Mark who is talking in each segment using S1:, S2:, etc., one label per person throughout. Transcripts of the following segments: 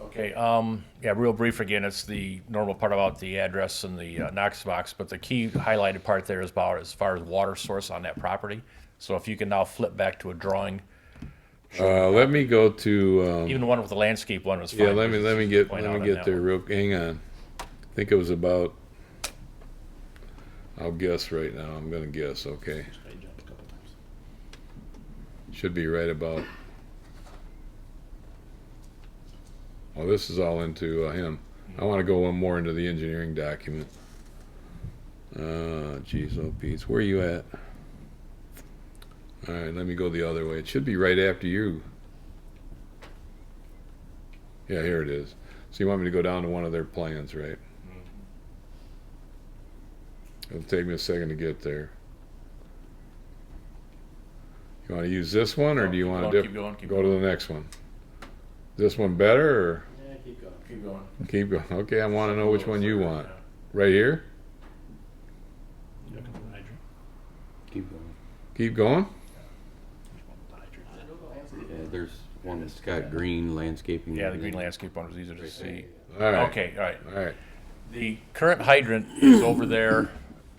S1: Okay, um, yeah, real brief again, it's the normal part about the address and the uh, Knox box, but the key highlighted part there is about as far as water source on that property. So if you can now flip back to a drawing,
S2: Uh, let me go to, um,
S1: even the one with the landscape one was fine.
S2: yeah, let me, let me get,
S1: Point
S2: let
S1: out
S2: me
S1: on
S2: get
S1: that
S2: there
S1: one.
S2: real, hang on. I think it was about, I'll guess right now, I'm gonna guess, okay. Should be right about. Oh, this is all into uh, him. I wanna go one more into the engineering document. Uh, geez, oh Pete, where you at? All right, let me go the other way. It should be right after you. Yeah, here it is. So you want me to go down to one of their plans, right?
S1: Mm-hmm.
S2: It'll take me a second to get there. You want to use this one, or do you
S1: Keep
S2: want
S1: going,
S2: to
S1: Keep going, keep
S2: go
S1: going.
S2: to the next one? This one better, or
S3: Yeah, keep going.
S1: Keep going.
S2: keep going? Okay, I want to know which one you
S1: Yeah.
S2: want. Right here?
S3: You're looking for the hydrant.
S4: Keep going.
S2: Keep going?
S3: Which one with the hydrant?
S4: Yeah, there's one that's got green landscaping.
S1: Yeah, the green landscape one was easier to see.
S2: All right.
S1: Okay, all right.
S2: All right.
S1: The current hydrant is over there,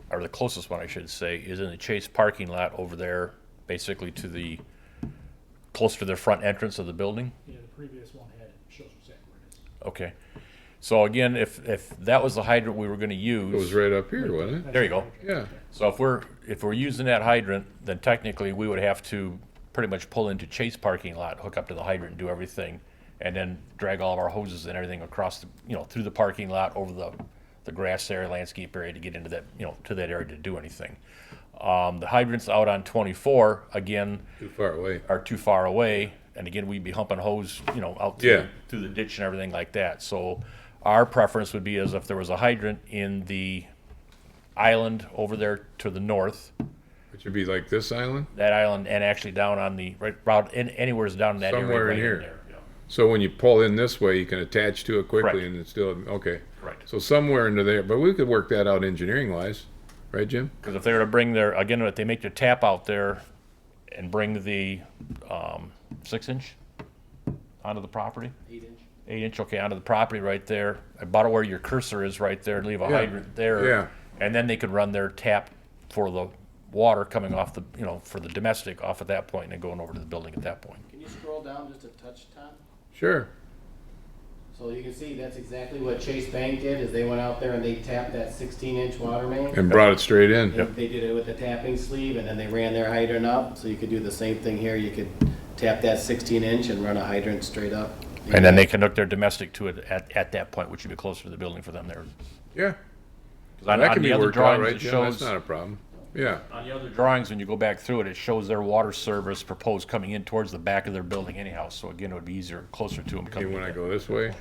S1: or the closest one, I should say, is in the Chase parking lot over there, basically to the, close to the front entrance of the building.
S3: Yeah, the previous one had, it, shows exactly where it is.
S1: Okay. So again, if, if that was the hydrant we were gonna
S2: It was
S1: use,
S2: right up here, wasn't it?
S1: there you go.
S2: Yeah.
S1: So if we're, if we're using that hydrant, then technically we would have to pretty much pull into Chase parking lot, hook up to the hydrant, do everything, and then drag all of our hoses and everything across, the you know, through the parking lot, over the, the grass area, landscape area to get into that, you know, to that area to do anything. Um, the hydrants out on twenty-four, again,
S2: Too far away.
S1: are too far away, and again, we'd be humping hose, you know, out
S2: Yeah.
S1: through, through the ditch and everything like that. So our preference would be is if there was a hydrant in the island over there to the north,
S2: It should be like this island.
S1: that island, and actually down on the, right, route, in, anywhere's down in that area.
S2: Somewhere in
S1: right
S2: here.
S1: there, yeah.
S2: So when you pull in this way, you can attach to it quickly,
S1: Correct.
S2: and it's still okay.
S1: Correct.
S2: So somewhere into there, but we could work that out engineering wise, right, Jim?
S1: Because if they were to bring their, again, if they make their tap out there and bring the um, six inch onto the property? Eight inch. Eight inch, okay, onto the property right there, about where your cursor is right there, leave a
S2: Yeah,
S1: hydrant there.
S2: yeah.
S1: And then they could run their tap for the water coming off the, you know, for the domestic off at that point and then going over to the building at that point.
S5: Can you scroll down just a touch, Tom?
S2: Sure.
S5: So you can see that's exactly what Chase Bank did, is they went out there and they tapped that sixteen inch water main.
S2: And brought it straight in.
S5: And They did it with the tapping sleeve and then they ran their hydrant up, so you could do the same thing here, you could tap that sixteen inch and run a hydrant straight up.
S1: And then they can hook their domestic to it at, at that point, which would be closer to the building for them there. 'Cause
S2: Yeah.
S1: on-
S2: that
S1: on
S2: can
S1: the
S2: be
S1: other
S2: worked out,
S1: drawings,
S2: right,
S1: it
S2: Jim? That's
S1: shows-
S2: not a problem. Yeah.
S1: On the other drawings, when you go back through it, it shows their water service proposed coming in towards the back of their building anyhow, so again, it would be easier, closer to them
S2: Okay,
S1: coming
S2: when I
S1: in.
S2: go this way,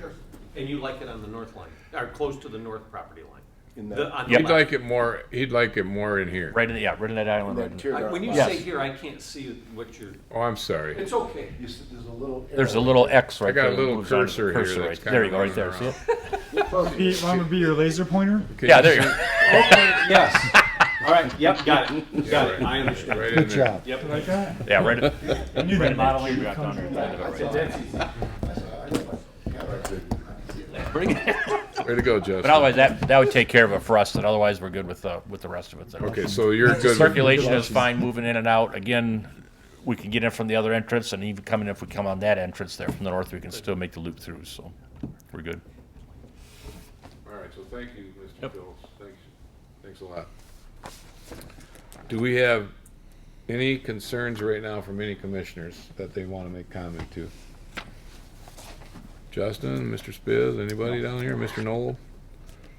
S6: And you like it on the north line, or close to the north property line?
S5: In the-
S6: The- on the
S1: Yep.
S2: he'd
S6: left.
S2: like it more. He'd like it more in here.
S1: Right in, the yeah, right in that island. right in-
S6: I- When you
S1: Yes.
S6: say here, I can't see what you're,
S2: Oh, I'm sorry.
S6: it's okay.
S1: There's a little X right
S2: got
S1: there.
S2: a
S1: that
S2: little
S1: moves on to the
S2: cursor here that's
S1: right-
S2: kinda uh,
S1: There you go, right
S2: running
S1: there, see
S2: around.
S1: it?
S7: Be, I'm gonna be your laser pointer.
S2: Okay,
S1: Yeah, there you go.
S6: Yes. All right, yep, got it, got it, I understand.
S2: Right in there.
S7: Yep. Like that.
S1: Yeah, right.
S7: I knew
S1: Red
S7: that.
S1: modeling, we got down there. Right. Pretty good.
S2: Way to go, Justin.
S1: But otherwise, that, that would take care of it for us, and otherwise, we're good with the, with the rest of it. then.
S2: Okay, so you're good. with-
S1: Circulation is fine, moving in and out. Again, we can get in from the other entrance, and even coming, if we come on that entrance there from the north, we can still make the loop through, so we're good.
S2: All right, so thank you, Mr. Phillips. Thanks, thanks a lot. Do we have any concerns right now from any commissioners that they want to make comment to? Justin, Mr. Spiz, anybody down here, Mr. Noel?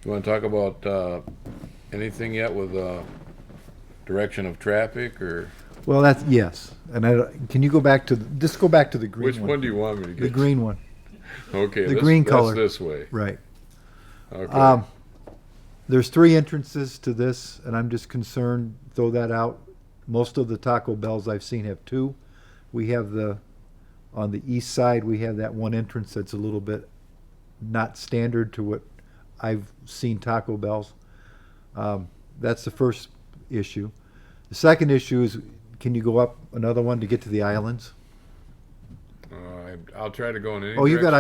S2: You want to talk about, uh, anything yet with, uh, direction of traffic or,
S8: Well, that's yes. And I don't- can you go back to the, just go back to the green
S2: which
S8: one?
S2: one do you want me to get?
S8: the green one,
S2: Okay.
S8: the
S2: this-
S8: green
S2: that's
S8: color.
S2: This way.
S8: right?
S2: Okay.
S8: Um, there's three entrances to this, and I'm just concerned. Throw that out. Most of the Taco Bells I've seen have two. We have the on the east side. We have that one entrance that's a little bit not standard to what I've seen Taco Bells. Um, that's the first issue. The second issue is can you go up another one to get to the islands?
S2: Uh, I- I'll try to go in any
S8: Oh, you got
S2: direction.